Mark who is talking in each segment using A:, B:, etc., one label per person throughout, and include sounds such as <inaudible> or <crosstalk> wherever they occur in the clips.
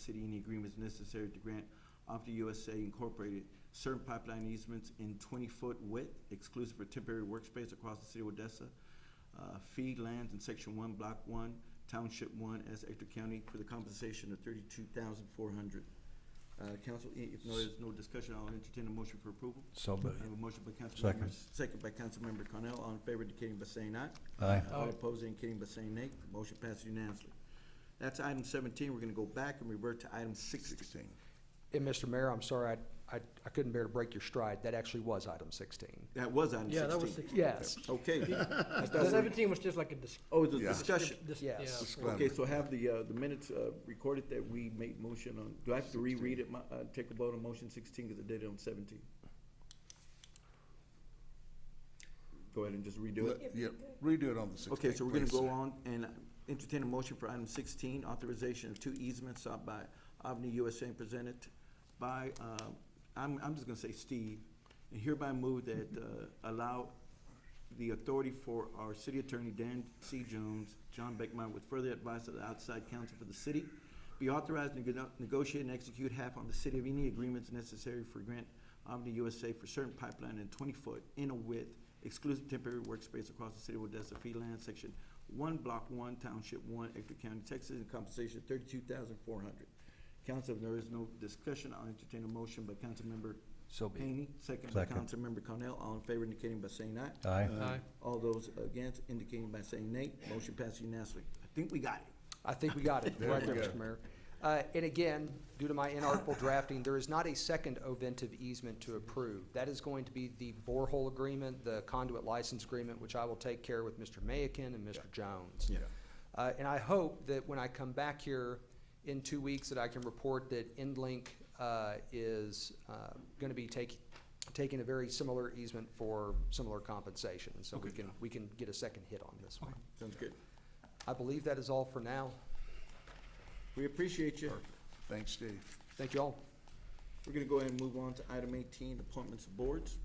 A: city any agreements necessary to grant Opti USA Incorporated certain pipeline easements in twenty-foot width exclusive for temporary workspace across the city of Odessa. Uh, fee lands in section one, block one, township one, as Ector County for the compensation of thirty-two thousand four hundred. Uh, council, i- if no, there's no discussion, I'll entertain a motion for approval.
B: So
A: I have
B: moved.
A: a motion by
B: Second.
A: Councilmember, second by Councilmember Cornell, all in favor indicating by saying aye.
B: Aye.
A: All opposed indicating by saying nay. Motion passes unanimously. That's item seventeen. We're gonna go back and revert to item sixteen.
C: And Mr. Mayor, I'm sorry, I, I, I couldn't bear to break your stride. That actually was item sixteen.
A: That was item
D: Yeah, that was
A: sixteen.
C: Yes.
A: Okay.
D: <laughs> The seventeen was just like a dis-
A: Oh, the
E: Yeah.
A: discussion.
D: dis-
C: Yes.
D: yeah.
A: Okay, so have the, uh, the minutes, uh, recorded that we made motion on, do I have to reread it, my, uh, take a vote on motion sixteen, cause I did it on seventeen? Go ahead and just redo it.
E: Let- Yeah, redo it on the sixteenth,
A: Okay, so we're gonna go on and entertain a motion for item sixteen, authorization of two easements sought by Omni USA and presented by, uh, I'm, I'm just gonna say Steve, and hereby move that, uh, allow the authority for our city attorney, Dan C. Jones, John Beckmeyer, with further advice of the outside counsel for the city, be authorized to nego- negotiate and execute half on the city of any agreements necessary for grant Omni USA for certain pipeline and twenty-foot in a width exclusive temporary workspace across the city of Odessa, fee land, section one, block one, township one, Ector County, Texas, in compensation thirty-two thousand four hundred. Council, if there is no discussion, I'll entertain a motion by Councilmember
B: So be it.
A: Haney, second by
B: Second.
A: Councilmember Cornell, all in favor indicating by saying aye.
B: Aye.
D: Aye.
A: All those against indicating by saying nay. Motion passes unanimously. I think we got it.
C: I think we got it.
E: There
C: Right
E: we
C: there,
E: go.
C: Mr. Mayor. Uh, and again, due to my inartful drafting, there is not a second Oventive easement to approve. That is going to be the borehole agreement, the conduit license agreement, which I will take care with Mr. Mayakin and Mr. Jones.
E: Yeah.
C: Uh, and I hope that when I come back here in two weeks, that I can report that EndLink, uh, is, uh, gonna be taking, taking a very similar easement for similar compensation. So we can, we can get a second hit on this one.
A: Sounds good.
C: I believe that is all for now.
A: We appreciate you.
E: Thanks, Steve.
C: Thank you all.
A: We're gonna go ahead and move on to item eighteen, appointments of boards.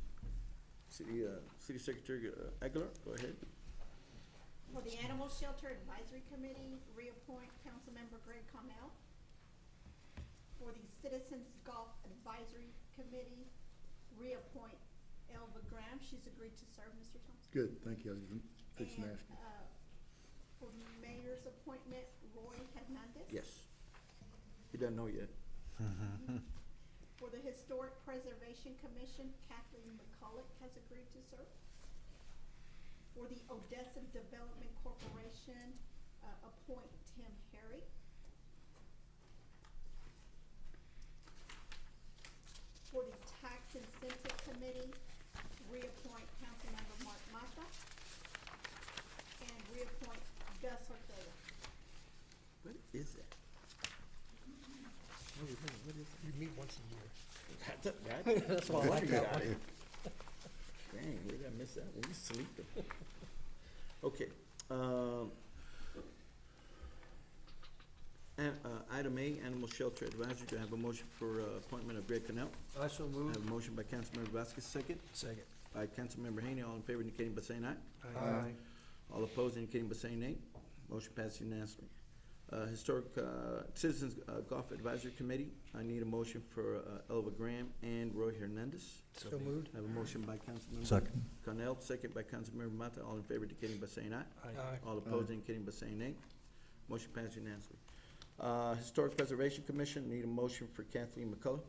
A: City, uh, City Secretary uh, Aguilar, go ahead.
F: For the Animal Shelter Advisory Committee, reappoint Councilmember Greg Connell. For the Citizens Golf Advisory Committee, reappoint Elva Graham. She's agreed to serve, Mr. Thompson.
G: Good, thank you, I was even fixing to
F: And,
G: ask you.
F: uh, For mayor's appointment, Roy Hernandez.
A: Yes. He doesn't know yet.
F: For the Historic Preservation Commission, Kathleen McCulloch has agreed to serve. For the Odessa Development Corporation, uh, appoint Tim Harry. For the Tax Incentive Committee, reappoint Councilmember Mark Mata. And reappoint Gus Ortega.
A: What is that?
D: What do you think? What is- You meet once a year.
A: That's, that?
D: <laughs> That's why I like that one.
A: <laughs> Dang, where did I miss that one? You sleeping. Okay, um. And, uh, item A, Animal Shelter Advisory, do I have a motion for, uh, appointment of Greg Connell?
D: I so
A: I
D: moved.
A: have a motion by Councilmember Vasquez, second
D: Second.
A: by Councilmember Haney, all in favor indicating by saying aye.
D: Aye.
A: All opposed indicating by saying nay. Motion passes unanimously. Uh, Historic, uh, Citizens uh, Golf Advisory Committee, I need a motion for uh, Elva Graham and Roy Hernandez.
D: So moved.
A: I have a motion by Councilmember.
B: Second.
A: Cornell, second by Councilmember Mata, all in favor indicating by saying aye.
D: Aye.
A: All opposed indicating by saying nay. Motion passes unanimously. Uh, Historic Preservation Commission, need a motion for Kathleen McCullough.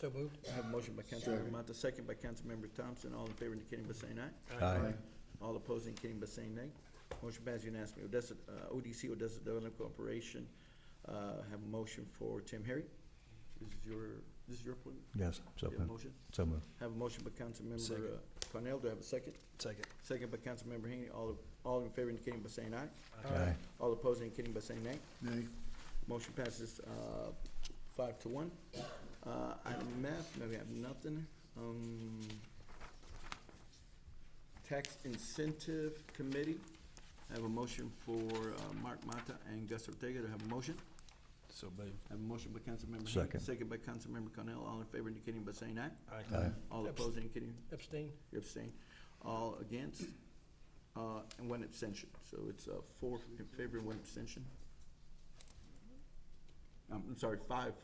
D: So moved.
A: I have a motion by Councilmember
G: Second.
A: Mata, second by Councilmember Thompson, all in favor indicating by saying aye.
B: Aye.
A: All opposed indicating by saying nay. Motion passes unanimously. Odessa, uh, ODC, Odessa Development Corporation, uh, have a motion for Tim Harry. This is your, this is your appointment?
B: Yes, so
A: Your
B: moved.
A: motion?
B: So moved.
A: Have a motion by Councilmember uh,
D: Second.
A: Cornell. Do I have a second?
D: Second.
A: Second by Councilmember Haney. All, all in favor indicating by saying aye.
B: Aye.
A: All opposed indicating by saying nay.
G: Nay,
A: Motion passes, uh, five to one. Uh, item F, no, we have nothing. Um, Tax Incentive Committee, I have a motion for, uh, Mark Mata and Gus Ortega to have a motion.
B: So moved.
A: I have a motion by Councilmember. Haney,
B: Second.
A: Second by Councilmember Cornell, all in favor indicating by saying aye.
B: Aye.
A: All opposed indicating
D: Abstain.
A: you abstain. All against, uh, and one abstention. So it's, uh, four in favor and one abstention. I'm sorry, five